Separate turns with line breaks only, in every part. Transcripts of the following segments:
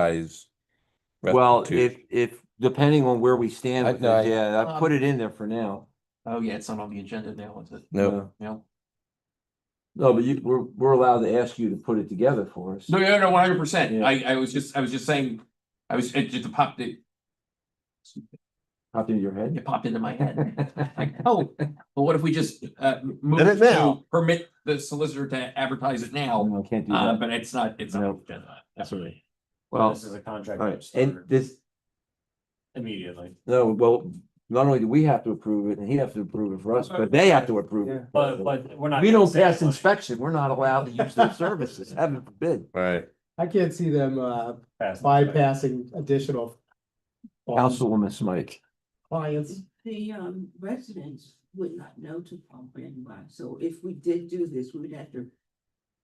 ties.
Well, if,
restitution.
if, depending on where we stand
I-
with
no, I-
it, yeah, I
Um,
put it in there for now.
Oh, yeah, it's not on the agenda now, is it?
No,
Uh,
No.
No, but you, we're, we're allowed to ask you to put it together for us.
No, no, no, one hundred percent.
Yeah.
I, I was just, I was just saying, I was, it just popped, it,
Popped into your head.
it popped into my head. Like, oh, but what if we just, uh, move
it now.
to permit the solicitor to advertise it now?
No, I can't do
Uh,
that.
but it's not, it's
No.
not. agenda. That's what I.
Well,
Um, This is a contract.
all
that
right, and
started
this,
Immediately,
no, well, not only do we have to approve it and he has to approve it for us, but they have to approve it.
but, but we're not.
We
gonna
don't
save
pass
money.
inspection, we're not allowed to use their services, heaven forbid.
right,
I can't see them uh
Pass inspection.
bypassing additional.
Um,
Councilwoman Smike.
Clients,
The um residents would not know to pump in wax, so if we did do this, we would have to.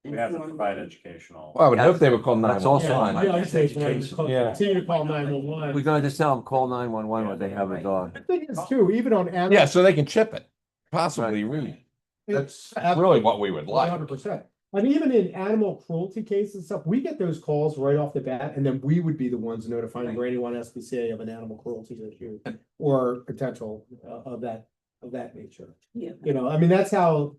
We have to
inform
provide
them.
educational.
well, I would hope they would call nine.
That's also
Yeah,
on.
yeah, I say,
Yeah.
continue to call nine one
um,
We're
one.
gonna just tell them, call nine one one when they have a dog.
The thing is too, even on.
Yeah, so they can chip it, possibly ruin it. That's really what we would
One
like.
hundred percent. And even in animal cruelty cases and stuff, we get those calls right off the bat, and then we would be the ones notifying
Right.
Brady one SPCA of an animal cruelty issue. Or potential uh, of that, of that nature,
Yeah.
you know, I mean, that's how,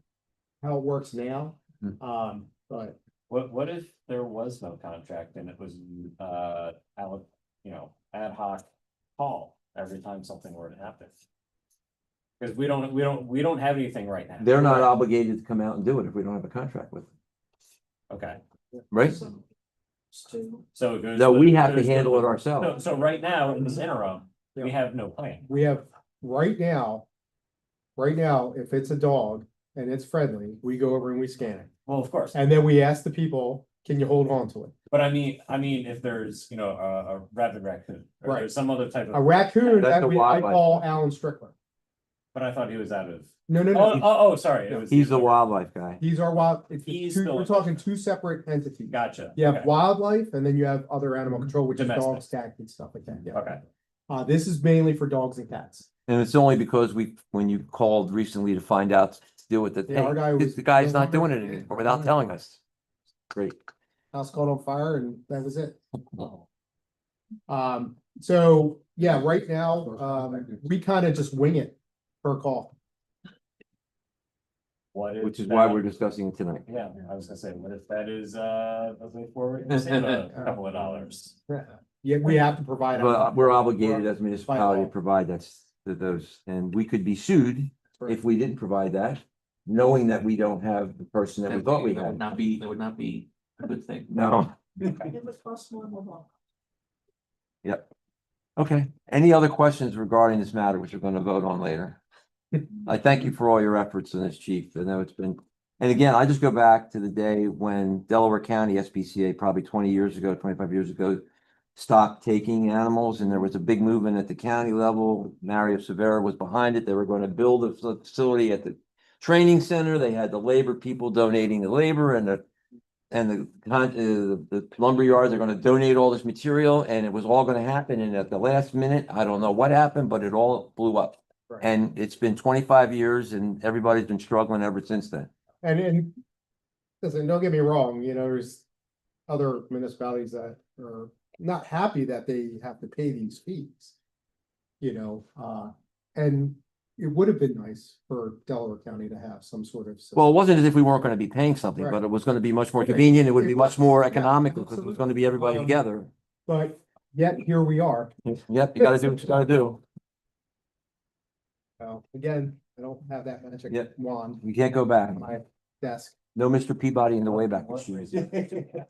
how it works now.
Hmm.
Um, but
What, what if there was no contract and it was, uh, out, you know, ad hoc call every time something were to happen? Cause we don't, we don't, we don't have anything right now.
They're not obligated to come out and do it if we don't have a contract with them,
Okay,
right?
So- so-
so. it goes
No,
to-
we have to
goes
handle it Mm-hmm.
So,
ourselves.
so right now, in this interim, we have no plan.
we have, right now. Right now, if it's a dog and it's friendly, we go over and we scan it.
Well, of course.
And then we ask the people, can you hold on to it?
But I mean, I mean, if there's, you know, a, a rabid raccoon, or
Right.
there's some other type
A
of,
raccoon,
That's
that
a
we, I
wildlife.
call Alan Strickland.
but I thought he was out of.
No, no,
Oh, oh,
no,
oh, sorry. it
No,
was
He's the
other-
wildlife guy.
he's our wild, it's
He's
two,
the-
we're talking two separate entities.
Gotcha.
You have
okay, Mm-hmm.
wildlife and then you have other animal control, which is
Domestic.
dogs, cats and stuff like that, yeah.
Okay,
Uh, this is mainly for dogs and cats.
And it's only because we, when you called recently to find out, to deal with it,
Yeah, our guy
hey, this-
was-
the guy's not doing it anymore without telling us. Great.
House caught on fire and that was it. Um, so, yeah, right now, um, we kind of just wing it per call.
what if?
Which is why
that-
we're discussing it tonight.
Yeah, I was gonna say, what if that is, uh, a way forward, You save a couple of dollars?
Yeah, we have to provide.
But we're obligated as a municipality to provide that s- to those, and we could be sued if we didn't provide that, knowing that we don't have the person that we thought we
That would
had.
Not be, that would not be a good thing.
No.
It was possible, blah, blah.
Okay, any other questions regarding this matter, which we're gonna vote on later? I thank you for all your efforts in this, chief. I know it's been, and again, I just go back to the day when Delaware County SPCA, probably twenty years ago, twenty-five years ago, stopped taking animals and there was a big movement at the county level. Mario Severa was behind it. They were gonna build a fa- facility at the training center. They had the labor people donating the labor and the and the con, uh, the- the lumber yards are gonna donate all this material and it was all gonna happen. And at the last minute, I don't know what happened, but it all blew up.
Right.
And it's been twenty-five years and everybody's been struggling ever since then.
And and listen, don't get me wrong, you know, there's other municipalities that are not happy that they have to pay these fees. You know, uh, and it would have been nice for Delaware County to have some sort of. system.
Well, it wasn't as if we weren't gonna be paying something,
Right.
but it was gonna be much more
Okay.
convenient. It would be
It
much
was.
more
Yeah,
economical because it was
absolutely.
gonna be everybody
Um,
together.
But yet here we are.
Yep, you gotta do what you gotta do.
So again, I don't have that magic
Yeah.
wand
You can't go back.
on my desk.
No Mr. Peabody in the way back.
What-
machine.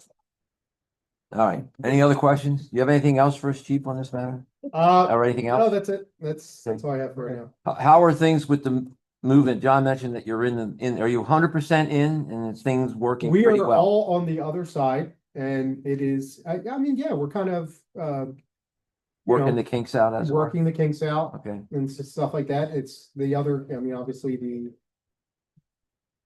All right. Any other questions? You have anything else for us, chief, on this matter?
Uh,
Or anything
no,
else?
that's it. That's, that's all I have for right now.
How- How are things with the movement? John mentioned that you're in, the in, are you hundred percent in and is things working
We
pretty
are
well?
all on the other side and it is, I, I mean, yeah, we're kind of, uh,
Working
know,
the kinks out as. it were?
working the kinks out
Okay,
and s- stuff like that. It's the other, I mean, obviously the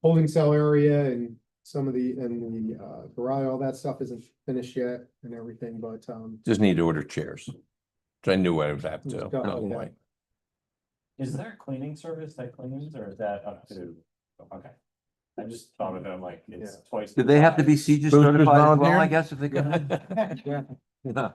holding cell area and some of the, and the, uh, garage, all that stuff isn't finished yet and everything, but, um,
Just need to order chairs. Which I knew I would have to.
Just go-
no
okay.
way.
Is there a cleaning service that cleans or is that up to, okay, I just thought of it, I'm like, it's twice.
Did they have to be
Boosters
CJIS certified as well, I
volunteer?
guess, if they could? Yeah.